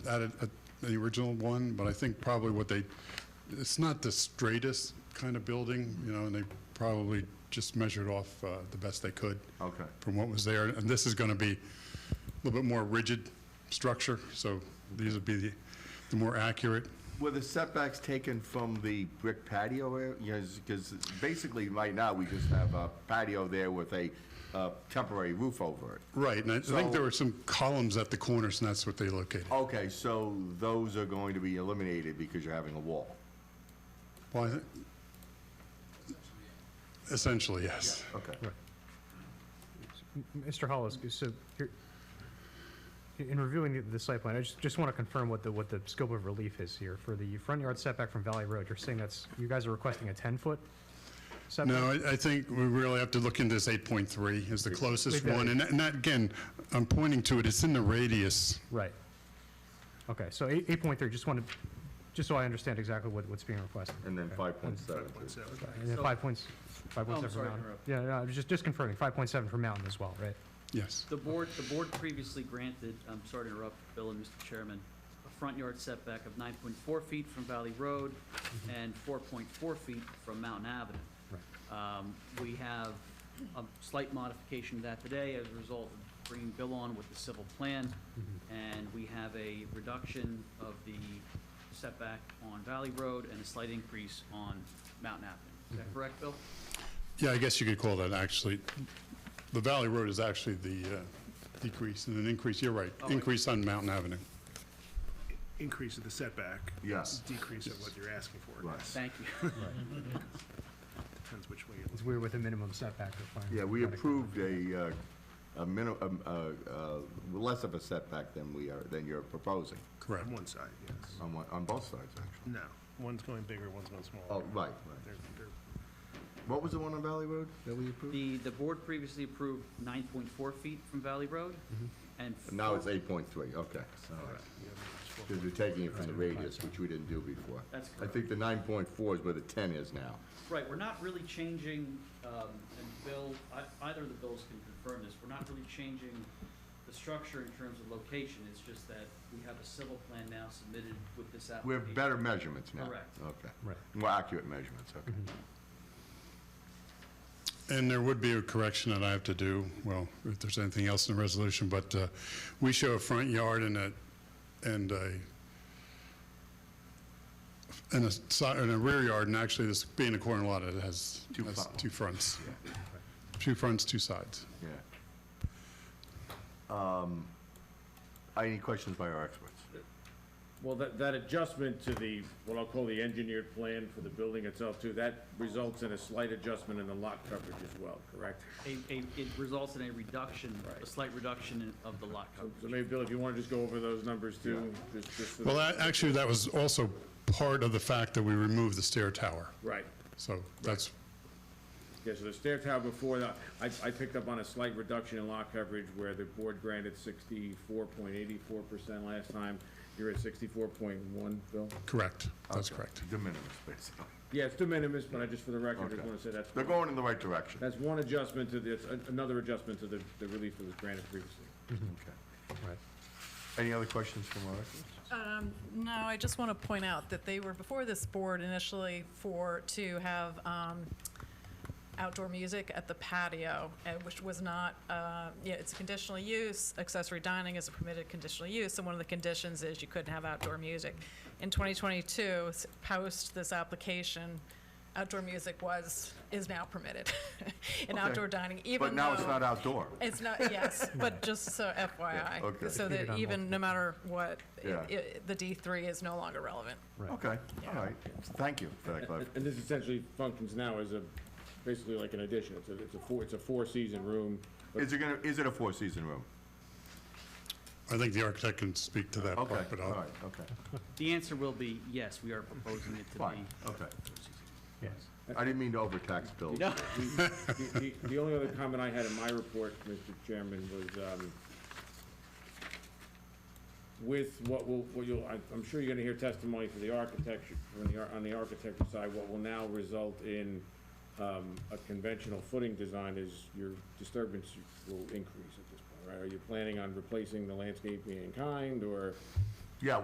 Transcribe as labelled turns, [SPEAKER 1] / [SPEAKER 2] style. [SPEAKER 1] added at the original one, but I think probably what they, it's not the straightest kind of building, you know, and they probably just measured off uh, the best they could
[SPEAKER 2] Okay.
[SPEAKER 1] from what was there. And this is going to be a little bit more rigid structure, so these would be the- the more accurate.
[SPEAKER 2] Were the setbacks taken from the brick patio area? Because basically, right now, we just have a patio there with a uh, temporary roof over it.
[SPEAKER 1] Right, and I I think there
[SPEAKER 2] So-
[SPEAKER 1] were some columns at the corners, and that's what they located.
[SPEAKER 2] Okay, so those are going to be eliminated because you're having a wall?
[SPEAKER 1] Well, I thi- Essentially, yes.
[SPEAKER 2] Okay.
[SPEAKER 3] Mr. Hollis, so here- in reviewing the- the site plan, I just, just want to confirm what the, what the scope of relief is here. For the front yard setback from Valley Road, you're saying that's, you guys are requesting a 10-foot setback?
[SPEAKER 1] No, I, I think we really have to look into this 8.3 is the closest
[SPEAKER 3] We've got
[SPEAKER 1] one. And that- and that, again, I'm pointing to it, it's in the radius.
[SPEAKER 3] Right. Okay, so eight- 8.3, just want to, just so I understand exactly what, what's being requested.
[SPEAKER 2] And then 5.7.
[SPEAKER 3] And then 5.7 for
[SPEAKER 4] Oh, I'm
[SPEAKER 3] mountain.
[SPEAKER 4] sorry to interrupt.
[SPEAKER 3] Yeah, no, I was just, just confirming, 5.7 for mountain as well, right?
[SPEAKER 1] Yes,
[SPEAKER 4] The board, the board previously granted, I'm sorry to interrupt, Bill and Mr. Chairman, a front yard setback of 9.4 feet from Valley Road and 4.4 feet from Mountain Avenue.
[SPEAKER 3] Right.
[SPEAKER 4] Um, We have a slight modification to that today as a result of bringing Bill on with the civil plan, and we have a reduction of the setback on Valley Road and a slight increase on Mountain Avenue. Is that correct, Bill?
[SPEAKER 1] yeah, I guess you could call that actually, the Valley Road is actually the uh, decrease and an increase, you're right,
[SPEAKER 4] Oh, I-
[SPEAKER 1] increase on Mountain Avenue.
[SPEAKER 5] increase of the setback.
[SPEAKER 2] Yes.
[SPEAKER 5] Decrease of what you're asking for.
[SPEAKER 2] Right.
[SPEAKER 4] Thank you.
[SPEAKER 5] Depends which way you look.
[SPEAKER 3] Because we're with a minimum setback requirement.
[SPEAKER 2] Yeah, we
[SPEAKER 3] Gotta go.
[SPEAKER 2] approved a, uh, a minimum, uh, less of a setback than we are, than you're proposing,
[SPEAKER 1] Correct.
[SPEAKER 5] On one side, yes.
[SPEAKER 2] on one- on both sides, actually.
[SPEAKER 5] No, one's going bigger, one's going smaller.
[SPEAKER 2] Oh, right, right.
[SPEAKER 5] They're- they're-
[SPEAKER 2] What was the one on Valley Road that we approved?
[SPEAKER 4] The, the board previously approved 9.4 feet from Valley Road, and.
[SPEAKER 2] Mm-hmm. Now it's
[SPEAKER 4] four-
[SPEAKER 2] 8.3, okay.
[SPEAKER 5] all right, yeah, it's four
[SPEAKER 2] Because
[SPEAKER 5] point-
[SPEAKER 2] you're taking it from the radius, which we didn't do before.
[SPEAKER 4] That's
[SPEAKER 2] I think the 9.4 is where the 10 is now.
[SPEAKER 4] Right, we're not really changing, um, and Bill, I- either of the bills can confirm this, we're not really changing the structure in terms of location, it's just that we have a civil plan now submitted with this
[SPEAKER 2] We
[SPEAKER 4] application.
[SPEAKER 2] have better measurements now.
[SPEAKER 4] Correct.
[SPEAKER 2] Okay.
[SPEAKER 3] Right.
[SPEAKER 2] More accurate measurements, okay.
[SPEAKER 1] And there would be a correction that I have to do, well, if there's anything else in the resolution, but uh, we show a front yard and a, and a, and a side, and a rear yard, and actually this being a corner lot, it has,
[SPEAKER 2] Two
[SPEAKER 1] has
[SPEAKER 2] front-
[SPEAKER 1] two fronts. Two fronts, two sides.
[SPEAKER 2] Yeah. Um, Any questions by our experts?
[SPEAKER 6] Well, that, that adjustment to the, what I'll call the engineered plan for the building itself too, that results in a slight adjustment in the lot coverage as well, correct?
[SPEAKER 4] A- a- It results in a reduction, a slight reduction in- of the lot coverage.
[SPEAKER 6] So maybe, Bill, if you want to just go over those numbers too, just, just for
[SPEAKER 1] Well,
[SPEAKER 6] the,
[SPEAKER 1] that- actually, that was also part of the fact that we removed the stair tower.
[SPEAKER 6] right.
[SPEAKER 1] So that's,
[SPEAKER 6] Yeah, so the stair tower before that, I, I picked up on a slight reduction in lot coverage where the board granted sixty-four point eighty-four percent last time. You're at sixty-four point one, Bill?
[SPEAKER 1] correct, that's correct.
[SPEAKER 2] De minimis, basically.
[SPEAKER 6] Yeah, it's de minimis, but I just, for the record, just
[SPEAKER 2] Okay.
[SPEAKER 6] want to say that's,
[SPEAKER 2] They're going in the right direction.
[SPEAKER 6] that's one adjustment to this, an- another adjustment to the, the relief that was granted previously.
[SPEAKER 2] Okay.
[SPEAKER 3] Right.
[SPEAKER 2] Any other questions from our experts?
[SPEAKER 7] Um, No, I just want to point out that they were before this board initially for, to have um, outdoor music at the patio, and which was not, uh, yeah, it's a conditional use, accessory dining is a permitted conditional use, and one of the conditions is you couldn't have outdoor music. In 2022, s- post this application, outdoor music was, is now permitted
[SPEAKER 2] Okay.
[SPEAKER 7] in outdoor dining, even though.
[SPEAKER 2] But now it's not outdoor.
[SPEAKER 7] It's not, yes, but just so FYI.
[SPEAKER 2] okay.
[SPEAKER 7] So
[SPEAKER 3] Repeated
[SPEAKER 7] that
[SPEAKER 3] on
[SPEAKER 7] even, no matter what, i-
[SPEAKER 2] Yeah.
[SPEAKER 7] i- the D3 is no longer relevant.
[SPEAKER 2] Okay, all right. Thank you for that
[SPEAKER 6] And-
[SPEAKER 2] clarification.
[SPEAKER 6] And this essentially functions now as a, basically like an addition, it's a, it's a four, it's a four-season room, but
[SPEAKER 2] Is it gonna, is it a four-season room?
[SPEAKER 1] I think the architect can speak to that
[SPEAKER 2] Okay,
[SPEAKER 1] part, but
[SPEAKER 2] all
[SPEAKER 1] I'll,
[SPEAKER 2] right, okay.
[SPEAKER 4] The answer will be, yes, we are proposing it to
[SPEAKER 2] Fine,
[SPEAKER 4] be.
[SPEAKER 2] okay. I didn't mean to overtax Bill.
[SPEAKER 4] No.
[SPEAKER 6] the, the- the only other comment I had in my report, Mr. Chairman, was, um, with what will, what you'll, I- I'm sure you're gonna hear testimony for the architecture, on the, ar- on the architecture side, what will now result in, um, a conventional footing design is your disturbance will increase at this point, right? Are you planning on replacing the landscaping in kind, or